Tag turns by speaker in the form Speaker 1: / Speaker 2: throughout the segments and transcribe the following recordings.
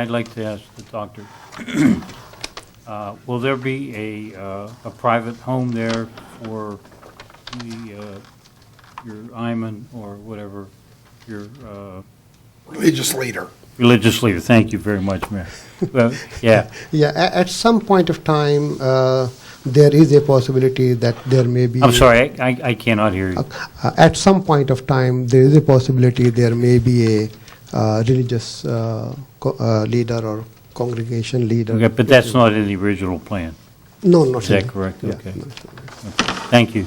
Speaker 1: I'd like to ask the doctor, uh, will there be a, uh, a private home there for the, uh, your Iman or whatever, your uh,
Speaker 2: religious leader.
Speaker 1: religious leader? Thank you very much, Mayor. Well, Yeah,
Speaker 3: Yeah, a- at some point of time, uh, there is a possibility that there may be.
Speaker 1: I'm sorry, I, I cannot hear you.
Speaker 3: Uh, at some point of time, there is a possibility there may be a uh, religious uh, co- uh, leader or congregation leader.
Speaker 1: Okay, But that's not in the original plan.
Speaker 3: No, not
Speaker 1: Is that
Speaker 3: really.
Speaker 1: correct?
Speaker 3: Yeah,
Speaker 1: Okay.
Speaker 3: no.
Speaker 1: Thank you.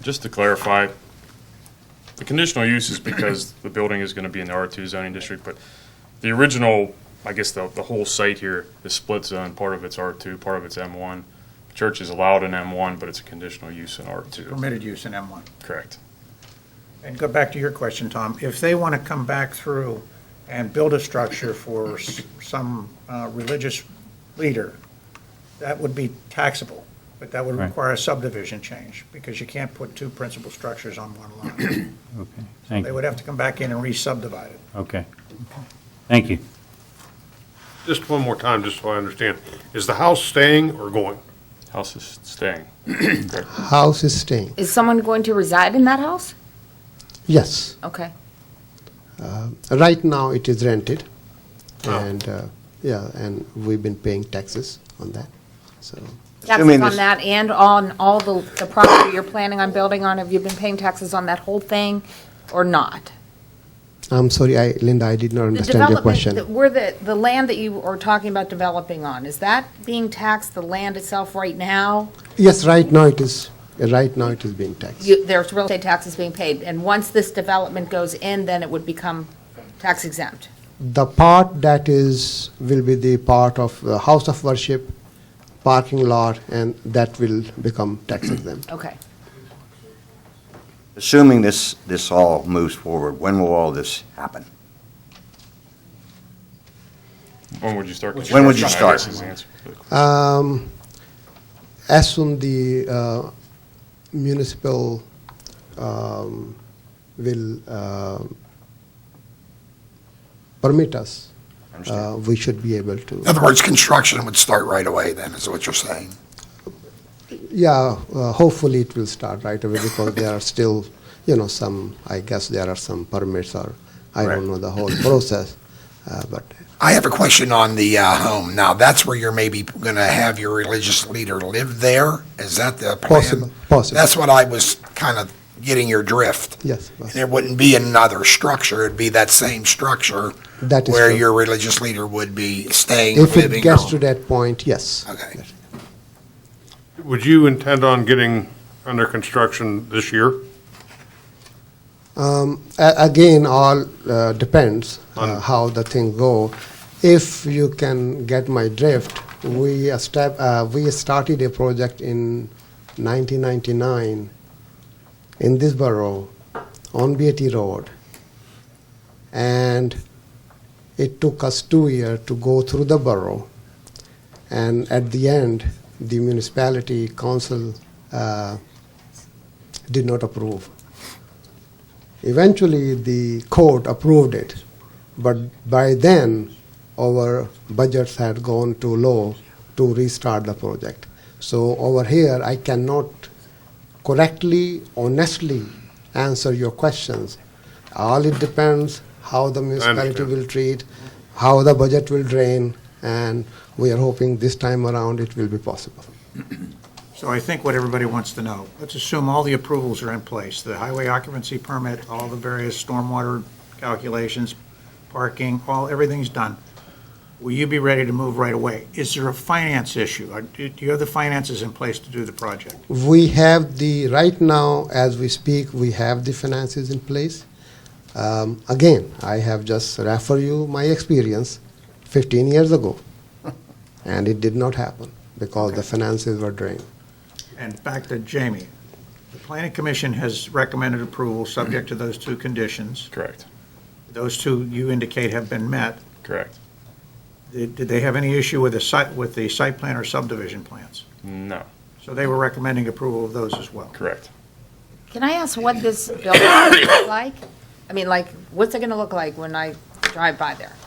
Speaker 4: Just to clarify, the conditional use is because the building is going to be in the R2 zoning district, but the original, I guess the, the whole site here is split zone, part of it's R2, part of it's M1. Church is allowed in M1, but it's a conditional use in R2.
Speaker 5: permitted use in M1.
Speaker 4: Correct.
Speaker 5: And go back to your question, Tom, if they want to come back through and build a structure for s- some uh, religious leader, that would be taxable, but that would
Speaker 1: Right.
Speaker 5: require a subdivision change, because you can't put two principal structures on one lot.
Speaker 1: Okay, thank
Speaker 5: They
Speaker 1: you.
Speaker 5: would have to come back in and re-subdivide it.
Speaker 1: Okay. Thank you.
Speaker 6: Just one more time, just so I understand. Is the house staying or going?
Speaker 4: House is staying.
Speaker 3: House is staying.
Speaker 7: Is someone going to reside in that house?
Speaker 3: Yes,
Speaker 7: Okay.
Speaker 3: right now it is rented,
Speaker 6: Oh.
Speaker 3: and uh, yeah, and we've been paying taxes on that. So
Speaker 7: Taxes on that and on all the, the property you're planning on building on, have you been paying taxes on that whole thing or not?
Speaker 3: I'm sorry, I, Linda, I did not
Speaker 7: The
Speaker 3: understand your
Speaker 7: development
Speaker 3: question.
Speaker 7: that- Where the, the land that you are talking about developing on, is that being taxed, the land itself right now?
Speaker 3: Yes, right now it is. Right now it is being taxed.
Speaker 7: You, there's real estate taxes being paid, and once this development goes in, then it would become tax exempt?
Speaker 3: The part that is will be the part of uh, house of worship, parking lot, and that will become tax exempt.
Speaker 7: Okay.
Speaker 8: Assuming this, this all moves forward, when will all this happen?
Speaker 4: When would you start?
Speaker 8: When would you
Speaker 4: construction? I guess is the
Speaker 8: start?
Speaker 4: answer to the question.
Speaker 3: Um, as soon the uh, municipal um, will uh, permit us, uh, we should be able to.
Speaker 5: Uh,
Speaker 2: In other words, construction would start right away then, is what you're saying.
Speaker 3: Yeah, uh, hopefully it will start right away because there are still, you know, some, I guess there are some permits or, I don't know the whole process, uh, but
Speaker 2: I have a question on the uh, home. Now, that's where you're maybe going to have your religious leader live there? Is that the plan?
Speaker 3: Possible, possible.
Speaker 2: That's what I was kind of getting your drift.
Speaker 3: yes. but
Speaker 2: There wouldn't be another structure, it'd be that same structure
Speaker 3: That is
Speaker 2: where
Speaker 3: true.
Speaker 2: your religious leader would be staying,
Speaker 3: If it
Speaker 2: living.
Speaker 3: gets to
Speaker 2: or-
Speaker 3: that point, yes.
Speaker 2: Okay.
Speaker 6: Would you intend on getting under construction this year
Speaker 3: Um, A- Again, all uh, depends uh, how the thing go. If you can get my drift, we estab- uh, we started a project in 1999 in this borough on Beatty Road, and it took us two years to go through the borough, and at the end, the municipality council uh, did not approve. Eventually, the court approved it, but by then, our budgets had gone too low to restart the project. So over here, I cannot correctly, honestly answer your questions. All it depends how the municipality
Speaker 6: understand.
Speaker 3: will treat, how the budget will drain, and we are hoping this time around it will be possible.
Speaker 5: So I think what everybody wants to know, let's assume all the approvals are in place, the highway occupancy permit, all the various stormwater calculations, parking, all, everything's done. Will you be ready to move right away? Is there a finance issue? Are- Do do you have the finances in place to do the project?
Speaker 3: We have the, right now, as we speak, we have the finances in place. Um, Again, I have just refer you my experience 15 years ago, and it did not happen because the finances were drained.
Speaker 5: And back to Jamie, the planning commission has recommended approval subject to those two conditions.
Speaker 4: Correct,
Speaker 5: Those two you indicate have been met.
Speaker 4: correct.
Speaker 5: Did did they have any issue with the site, with the site plan or subdivision plans?
Speaker 4: No,
Speaker 5: So they were recommending approval of those as well.
Speaker 4: correct.
Speaker 7: Can I ask what this building is gonna look like? I mean, like, what's it gonna look like when I drive by there?